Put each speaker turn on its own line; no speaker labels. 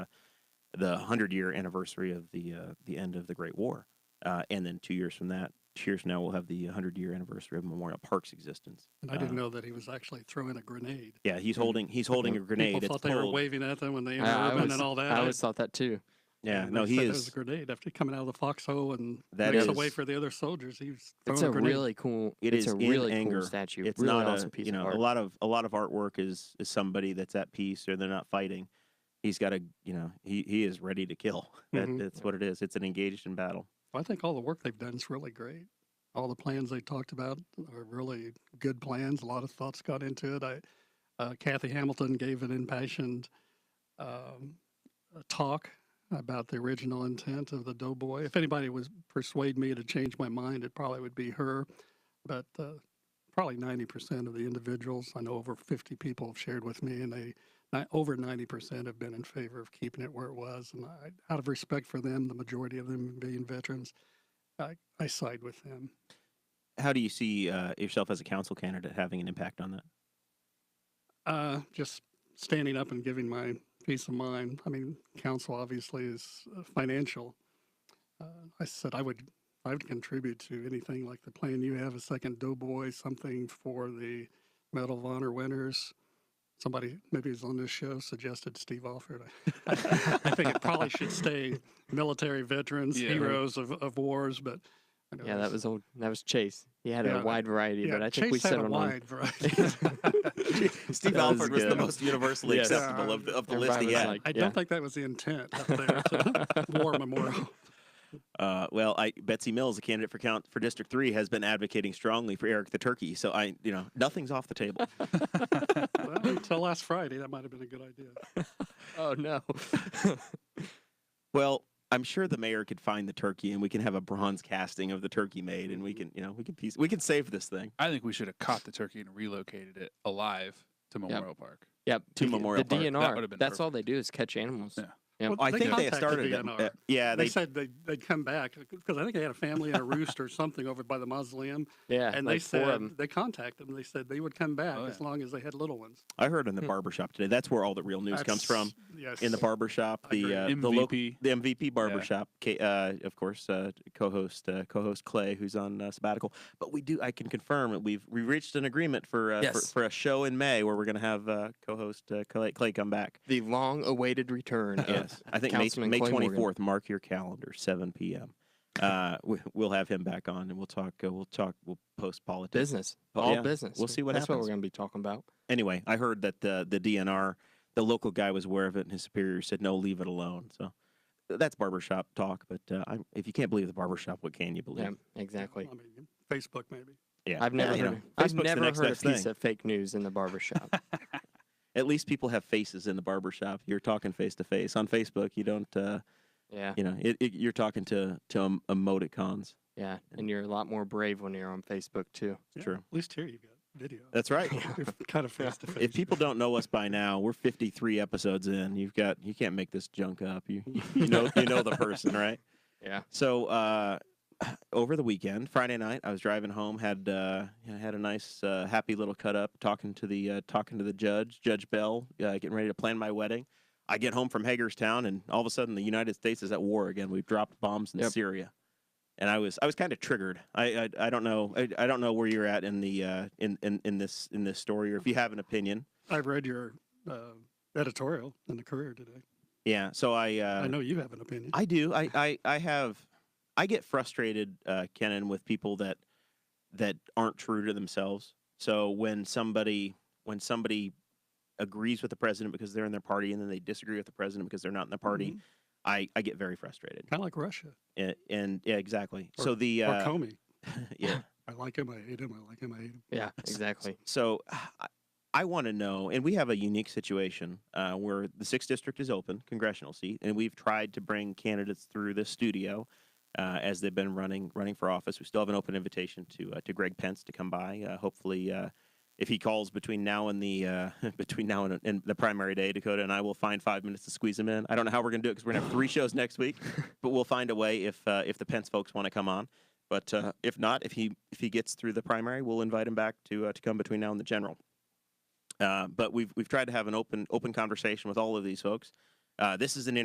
the 100 year anniversary of the uh, the end of the Great War. Uh, and then two years from that, two years from now, we'll have the 100 year anniversary of Memorial Park's existence.
I didn't
Uh,
know that he was actually throwing a grenade.
Yeah, he's holding he's holding a grenade.
People
It's
thought they were
pulled.
waving at them when they
I-
entered
I
urban
was-
and all that.
I always thought that too.
yeah,
And
no,
they
he
said There was
is.
a grenade after coming out of the foxhole and
That
makes a way
is-
for the other soldiers. He's
It's
throwing
a
a grenade.
really cool.
It
it's
is
a
in
really
anger.
cool statue.
It's
really
not
awesome
a
piece
you
of
know
art.
a lot of a lot of artwork is is somebody that's at peace or they're not fighting. He's got a you know he he is ready to kill. That,
Mhm.
That's what it is. It's an engaged in battle.
I think all the work they've done is really great. All the plans they talked about are really good plans. A lot of thoughts got into it. I, uh, Kathy Hamilton gave an impassioned um, uh, talk about the original intent of the Doughboy. If anybody was persuade me to change my mind, it probably would be her. But uh, probably ninety percent of the individuals I know, over fifty people, have shared with me, and they ni- over ninety percent have been in favor of keeping it where it was. And I, out of respect for them, the majority of them being veterans, I, I side with them.
How do you see uh, yourself as a council candidate having an impact on that?
Uh, just standing up and giving my peace of mind. I mean, council obviously is uh, financial. Uh, I said I would, I would contribute to anything like the plan you have, a second Doughboy, something for the Medal of Honor winners. Somebody maybe who's on this show suggested Steve Alford. I think it probably should stay military veterans,
Yeah.
heroes of, of wars, but. I know
Yeah, that
there's-
was old. That was Chase. He had
Yeah.
a wide variety,
yeah,
but I think we
Chase had a
settled on
wide variety.
That
Steve
was
Alford was the
good.
most universally
Yes.
acceptable of the, of the list
Everybody
he
was
had.
like,
I
yeah.
don't think that was the intent up there. to War memorial.
Uh, well, I Betsy Mills, a candidate for count for District Three, has been advocating strongly for Eric the Turkey. So I you know nothing's off the table.
Well, until last Friday, that might have been a good idea.
Oh no.
well, I'm sure the mayor could find the turkey, and we can have a bronze casting of the turkey made, and we can you know we can piece we can save this thing.
I think we should have caught the turkey and relocated it alive to Memorial Park.
yep.
To
we could-
Memorial
The
Park. That
DNR.
would've been
That's all they do is catch animals.
Yeah.
Yep.
Well,
I think they
contacted
started. At,
DNR.
uh, yeah,
they,
they
said they'd, they'd come back because I think they had a family and a roost or something over by the mausoleum,
Yeah.
and they
like four of
said
'em.
they contacted them. They said they would come back
Oh,
as
yeah.
long as they had little ones.
I heard in the
Hmm.
barber shop today. That's where all the real news comes from.
That's- Yes.
In the barber shop, the
Agreed.
uh,
MVP.
the local the MVP barbershop, K uh, of course, uh, co-host uh, co-host Clay, who's on uh, sabbatical. But we do, I can confirm that we've we reached an agreement for uh, for,
Yes.
for a show in May where we're going to have uh, co-host uh, Clay, Clay come back.
the long-awaited return. of-
Yes, I think May,
Councilman
May
Clay Morgan.
24th. Mark your calendar, 7 p.m. Uh, we, we'll have him back on, and we'll talk. Uh, we'll talk. We'll post politics.
Business.
Well,
all
yeah,
business.
we'll see what
That's what
happens.
we're going to be talking about.
Anyway, I heard that the the DNR, the local guy was aware of it, and his superior said, "No, leave it alone." So th- that's barbershop talk. But uh, I'm, if you can't believe the barbershop, what can you believe?
Yeah. Exactly.
I mean, Facebook maybe.
Yeah,
I've never
you know,
heard. I've
Facebook's the
never
next
heard a
best
piece
thing.
of fake news in the barber shop.
At least people have faces in the barbershop. You're talking face to face on Facebook. You don't, uh,
yeah.
you know, it, it, you're talking to to em- emoticons.
Yeah. And you're a lot more brave when you're on Facebook too.
Yeah,
True.
At least here you've got video.
That's right.
You're kind of face to face.
if people don't know us by now, we're 53 episodes in. You've got you can't make this junk up. You you know you know the person, right?
Yeah.
So uh, over the weekend, Friday night, I was driving home. had uh, you know, had a nice, uh, happy little cut up talking to the uh, talking to the judge, Judge Bell, uh, getting ready to plan my wedding. I get home from Hagerstown, and all of a sudden, the United States is at war again. We've dropped bombs in
Yep.
Syria, and I was I was kind of triggered. I, I I don't know I, I don't know where you're at in the uh, in, in in this in this story, or if you have an opinion.
I've read your uh, editorial in the Courier today.
Yeah. So I uh,
I know you have an opinion.
I do. I, I, I have. I get frustrated, uh, Kenan, with people that that aren't true to themselves. So when somebody when somebody agrees with the president because they're in their party, and then they disagree with the president because they're not in the
Mm-hmm.
party, I, I get very frustrated.
kind of like Russia
And, and yeah, exactly. so
Or-
the
or
uh,
Comey.
yeah,
I like him. I hate him. I like him. I hate him.
Yeah. Exactly.
So I, I want to know, and we have a unique situation uh, where the sixth district is open, congressional seat, and we've tried to bring candidates through this studio uh, as they've been running running for office. We still have an open invitation to uh, to Greg Pence to come by. Uh, hopefully, uh, if he calls between now and the uh, between now and, and the primary day, Dakota and I will find five minutes to squeeze him in. I don't know how we're gonna do it because we're gonna have three shows next week, but we'll find a way if uh, if the Pence folks want to come on. But uh, if not, if he if he gets through the primary, we'll invite him back to uh, to come between now and the general. Uh, but we've we've tried to have an open open conversation with all of these folks. Uh, this is an